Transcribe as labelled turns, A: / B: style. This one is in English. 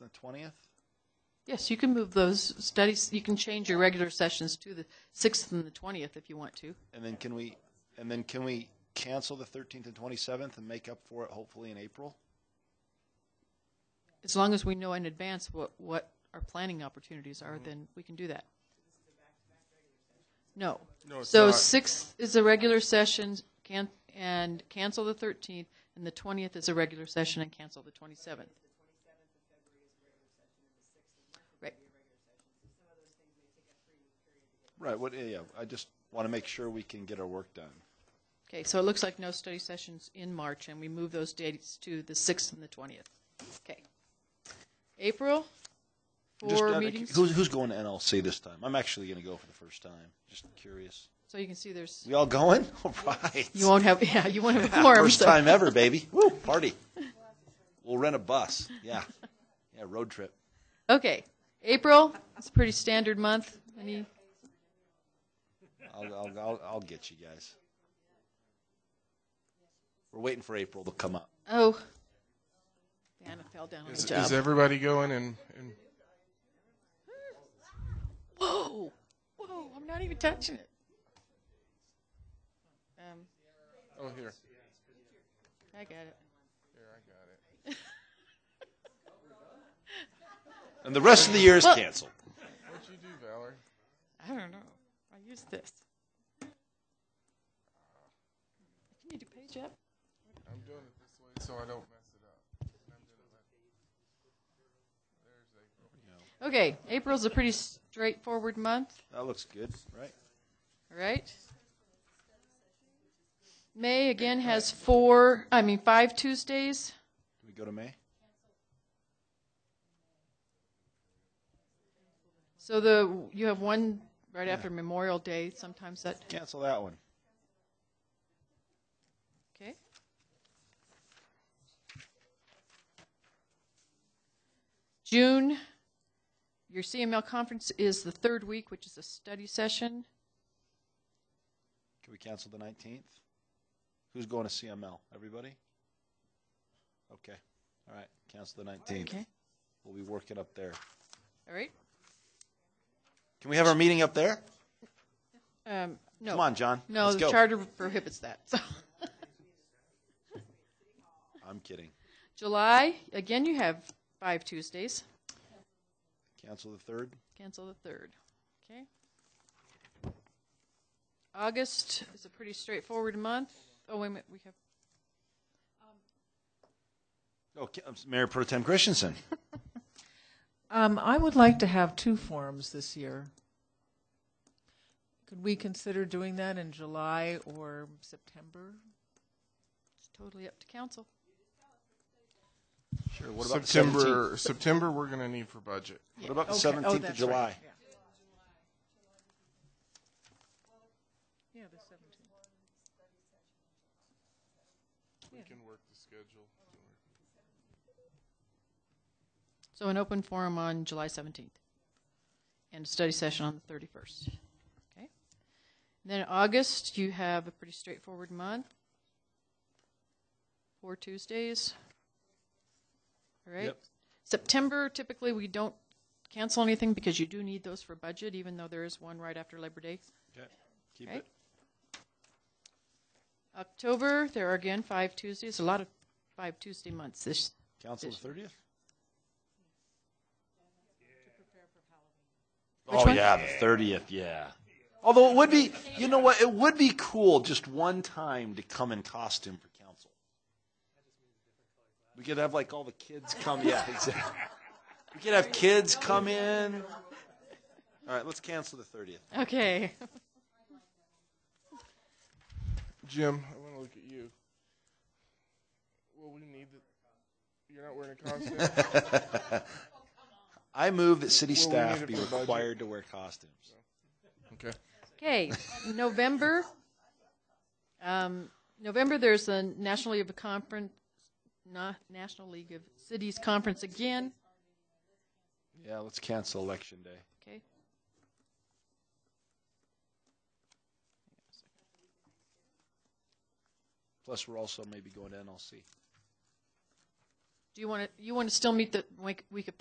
A: and the twentieth?
B: Yes, you can move those studies, you can change your regular sessions to the 6th and the 20th if you want to.
A: And then can we, and then can we cancel the thirteenth and twenty-seventh and make up for it hopefully in April?
B: As long as we know in advance what, what our planning opportunities
C: Mm-hmm.
B: are, then we can do that. No.
C: No, it's
B: So
C: not.
B: 6th is a regular session, can, and cancel the 13th, and the 20th is a regular session and cancel the 27th. Right.
A: Right, what, yeah, yeah, I just want to make sure we can get our work done.
B: Okay, so it looks like no study sessions in March, and we move those dates to the 6th and the 20th. Okay. April,
A: Just out
B: four
A: of-
B: meetings.
A: Who's, who's going to NLC this time? I'm actually going to go for the first time, just curious.
B: So you can see there's,
A: We all going? All right.
B: you won't have, yeah, you won't have a quorum.
A: First
B: so-
A: time ever, baby. Woo, party. We'll rent a bus, yeah. Yeah, road trip.
B: Okay, April, it's a pretty standard month. Any,
A: I'll, I'll, I'll, I'll get you guys. We're waiting for April to come up.
B: oh. Diana fell down on the
C: Is, is
B: job.
C: everybody going? And, and
B: Whoa, whoa, I'm not even touching it. Um,
C: oh, here,
B: I got it.
C: here I got it.
A: And the rest of the year is
B: Well-
A: canceled.
C: What'd you do, Valerie?
B: I don't know. I use this. Can you do page up?
C: I'm doing it this way so I don't mess it up. I'm doing it like- There's April.
B: Okay, April's a pretty straightforward month,
A: That looks good, right?
B: all right? May again has four, I mean, five Tuesdays.
A: Can we go to May?
B: So the, you have one right after Memorial Day, sometimes that,
A: Cancel that one.
B: okay? June, your CML conference is the third week, which is a study session.
A: Can we cancel the 19th? Who's going to CML? Everybody? Okay. All right. Cancel the 19th.
B: Okay,
A: We'll be working up there.
B: all right?
A: Can we have our meeting up there?
B: Um, no.
A: Come on, John.
B: No,
A: Let's
B: the
A: go.
B: charter prohibits that. So.
A: I'm kidding.
B: July, again, you have five Tuesdays.
A: Cancel the 3rd.
B: Cancel the third. Okay. August is a pretty straightforward month. Oh, wait a minute, we have,
A: Oh, ca- um, Mayor Pro Tem Christensen.
D: Um, I would like to have two forums this year. Could we consider doing that in July or September?
B: it's totally up to council.
A: Sure. What about the 17th?
C: September, September, we're going to need for budget.
A: What about the
D: Okay.
A: 17th
D: Oh,
A: of
D: that's right.
A: July?
D: Yeah. Yeah, the seventeenth.
C: We can work the schedule.
B: So an open forum on July 17th and a study session on the 31st. Okay. Then in August, you have a pretty straightforward month. Four Tuesdays. All right.
A: Yep.
B: September, typically we don't cancel anything because you do need those for budget, even though there is one right after Labor Day.
A: Okay. Keep
B: Okay.
A: it.
B: October, there are again five Tuesdays, a lot of five Tuesday months this,
A: Council the 30th?
B: Which
A: Oh
B: one?
A: yeah, the 30th, yeah. Although it would be, you know what, it would be cool just one time to come in costume for council. We could have like all the kids come, yeah, exactly. We could have kids come in. All right, let's cancel the 30th.
B: Okay.
C: Jim, I want to look at you. Well, we need the. You're not wearing a costume?
A: I move that city
C: Well, we need
A: staff
C: it
A: be
C: for budget.
A: required to wear costumes.
C: okay.
B: Okay, November. Um, November, there's a National League of Conference, na- National League of Cities Conference again.
A: Yeah, let's cancel election day.
B: Okay.
A: Plus, we're also maybe going to NLC.
B: Do you want to, you want to still meet the week, week of